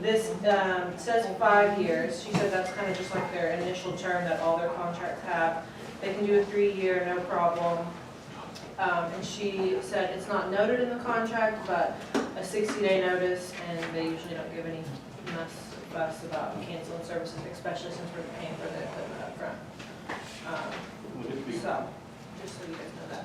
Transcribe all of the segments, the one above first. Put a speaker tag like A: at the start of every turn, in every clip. A: this, um, says five years, she said that's kind of just like their initial term that all their contracts have. They can do a three-year, no problem. Um, and she said it's not noted in the contract, but a sixty-day notice, and they usually don't give any mess, fuss about canceling services, especially since we're paying for the equipment upfront. Um,
B: Would it be,
A: So, just so you guys know that.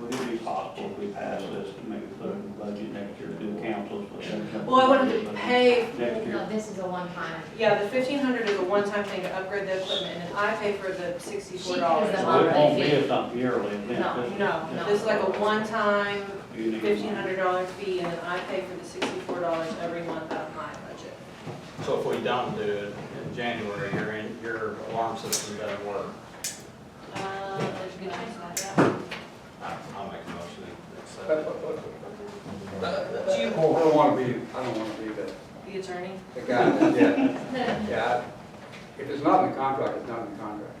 B: would it be possible if we pass this to maybe put in the budget next year, do councils? but-
A: Well, I wanted to pay,
B: Next year,
C: No, this is a one-time.
A: yeah, the fifteen hundred is a one-time thing to upgrade the equipment, and I pay for the sixty-four dollars.
C: the
B: so it won't be
C: monthly
B: a something yearly event.
C: No,
B: this-
A: No, this is like a one-time
B: you need-
A: fifteen hundred dollar fee, and then I pay for the sixty-four dollars every month out of my budget.
D: So if we don't do it in January, your, in- your alarm system doesn't work.
A: Uh, good idea.
D: I- I'll make a motion to accept
E: But,
D: it.
E: but, but,
A: Do you,
E: I don't wanna be, I don't wanna be the,
A: the attorney?
E: the guy that, yeah, yeah. I- If it's not in the contract, it's not in the contract.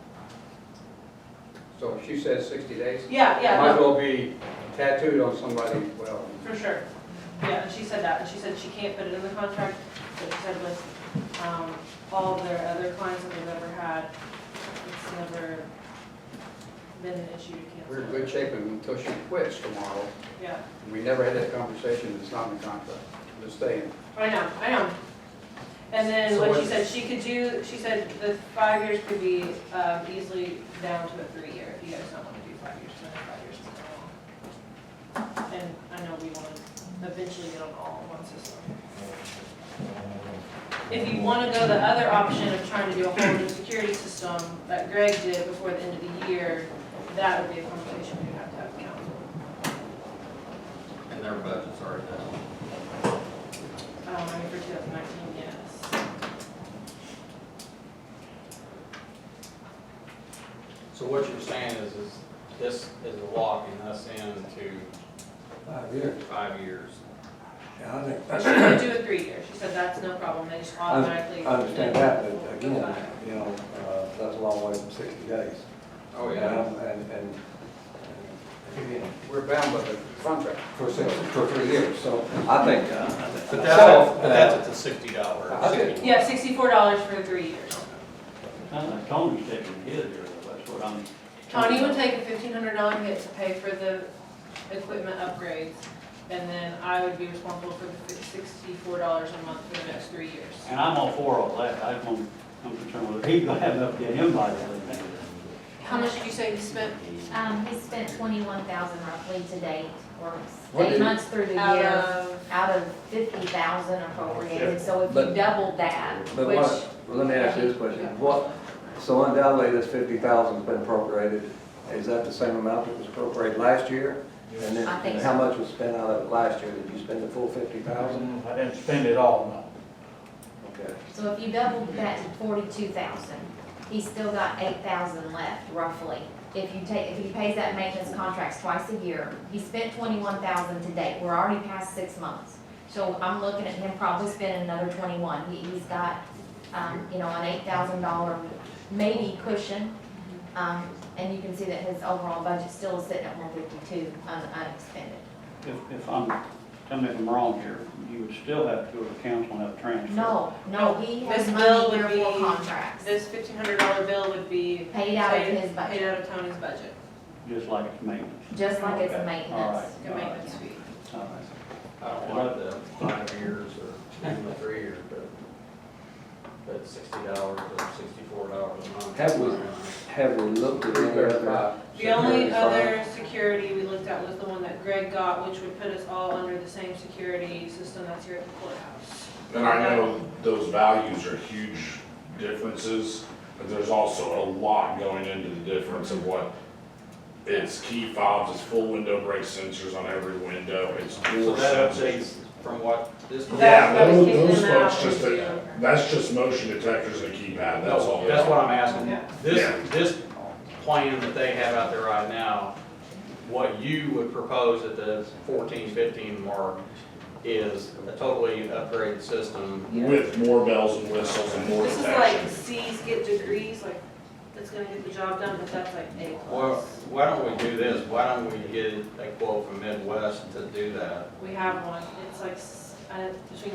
E: So if she says sixty days,
A: Yeah, yeah,
E: might as
A: no,
E: well be tattooed on somebody, well,
A: for sure. Yeah, and she said that, and she said she can't put it in the contract, but she said with, um, all of their other clients that they've ever had, it's never been an issue to cancel.
E: we're in good shape until she quits tomorrow.
A: Yeah,
E: We never had that conversation, it's not in the contract, it's staying.
A: I know, I know. And then
E: So
A: what she
E: what-
A: said, she could do, she said the five years could be, um, easily down to a three-year, if you guys don't wanna do five years, then five years is not long. And I know we wanna eventually get on all one system. If you wanna go the other option of trying to do a whole new security system that Greg did before the end of the year, that would be a conversation we'd have to have with council.
D: And their budget's already down.
A: Um, I mean, for two thousand nineteen, yes.
D: So what you're saying is, is this is locking us into
F: Five years.
D: five years.
F: Yeah, I think,
A: She could do a three-year, she said that's no problem, they just automatically.
F: I understand that, but again, you know, uh, that's a long way from sixty days.
D: Oh,
F: Um, And, and, and, again,
E: We're bound by the contract.
F: for six, for three years, so I think. uh,
D: But that's, but that's at the sixty dollar.
F: I did.
A: Yeah, sixty-four dollars for three years.
B: Sounds like Tony's taking his year, that's what I'm.
A: Tony would take a fifteen hundred dollar hit to pay for the equipment upgrades, and then I would be responsible for the sixty-four dollars a month for the next three years.
B: And I'm all for all that, I just want, I'm concerned with, he's gonna have enough to get him by the end of the year.
A: How much did you say you spent
C: Um, he spent twenty-one thousand roughly to date, or
F: What
C: eight
F: did-
C: months through the
A: out
C: year,
A: of,
C: out of fifty thousand appropriated, so if you
F: But-
C: doubled that,
F: But
C: which,
F: what, well, let me ask you this question, what, so undoubtedly this fifty thousand's been appropriated, is that the same amount that was appropriated last year? And then,
C: I think
F: and how much was spent out of it last year, did you spend the full fifty thousand?
G: I didn't spend it all, no.
F: Okay.
C: so if you doubled that to forty-two thousand, he's still got eight thousand left roughly. If you take, if he pays that maintenance contracts twice a year, he spent twenty-one thousand to date, we're already past six months. So I'm looking at him probably spending another twenty-one, he, he's got, um, you know, an eight thousand dollar maybe cushion. Um, and you can see that his overall budget still is sitting at one fifty-two un- unexpended.
B: If, if I'm, tell me if I'm wrong here, you would still have to go to council and have a transfer.
C: No, no, he has
A: This bill
C: money
A: would
C: here for
A: be-
C: contracts,
A: this fifteen hundred dollar bill would be
C: paid out of his
A: paid
C: budget,
A: out of Tony's budget,
B: Just like it's maintenance.
C: just like it's
B: Okay, all
C: a maintenance.
B: right,
A: the
B: all right,
A: maintenance fee.
B: all right.
D: I don't like the five years or even the three years, but, but sixty dollars or sixty-four dollars a month.
F: Have we- Have we looked at any other?
A: The only
F: security
A: other security we looked at was the one that Greg got, which would put us all under the same security system that's here at the courthouse.
H: And I know those values are huge differences, but there's also a lot going into the difference of what it's key fobs, it's full window brake sensors on every window, it's
D: So
H: door
D: that
H: sensors.
D: updates from what this.
H: Yeah,
A: That's what was kicking
H: those, those
A: them out
H: folks just,
A: when we
H: a-
A: were-
H: that's just motion detectors and a keypad, that's all.
D: No, That's what I'm asking.
A: Yeah.
H: Yeah.
D: This, this plan that they have out there right now, what you would propose at the fourteen, fifteen mark is a totally upgraded system.
H: With more bells and whistles and more
A: This is like
H: detection.
A: C's get degrees, like, it's gonna get the job done, but that's like A
D: Well,
A: plus.
D: why don't we do this? Why don't we get a quote from Midwest to do that?
A: We have one, it's like, s- uh, between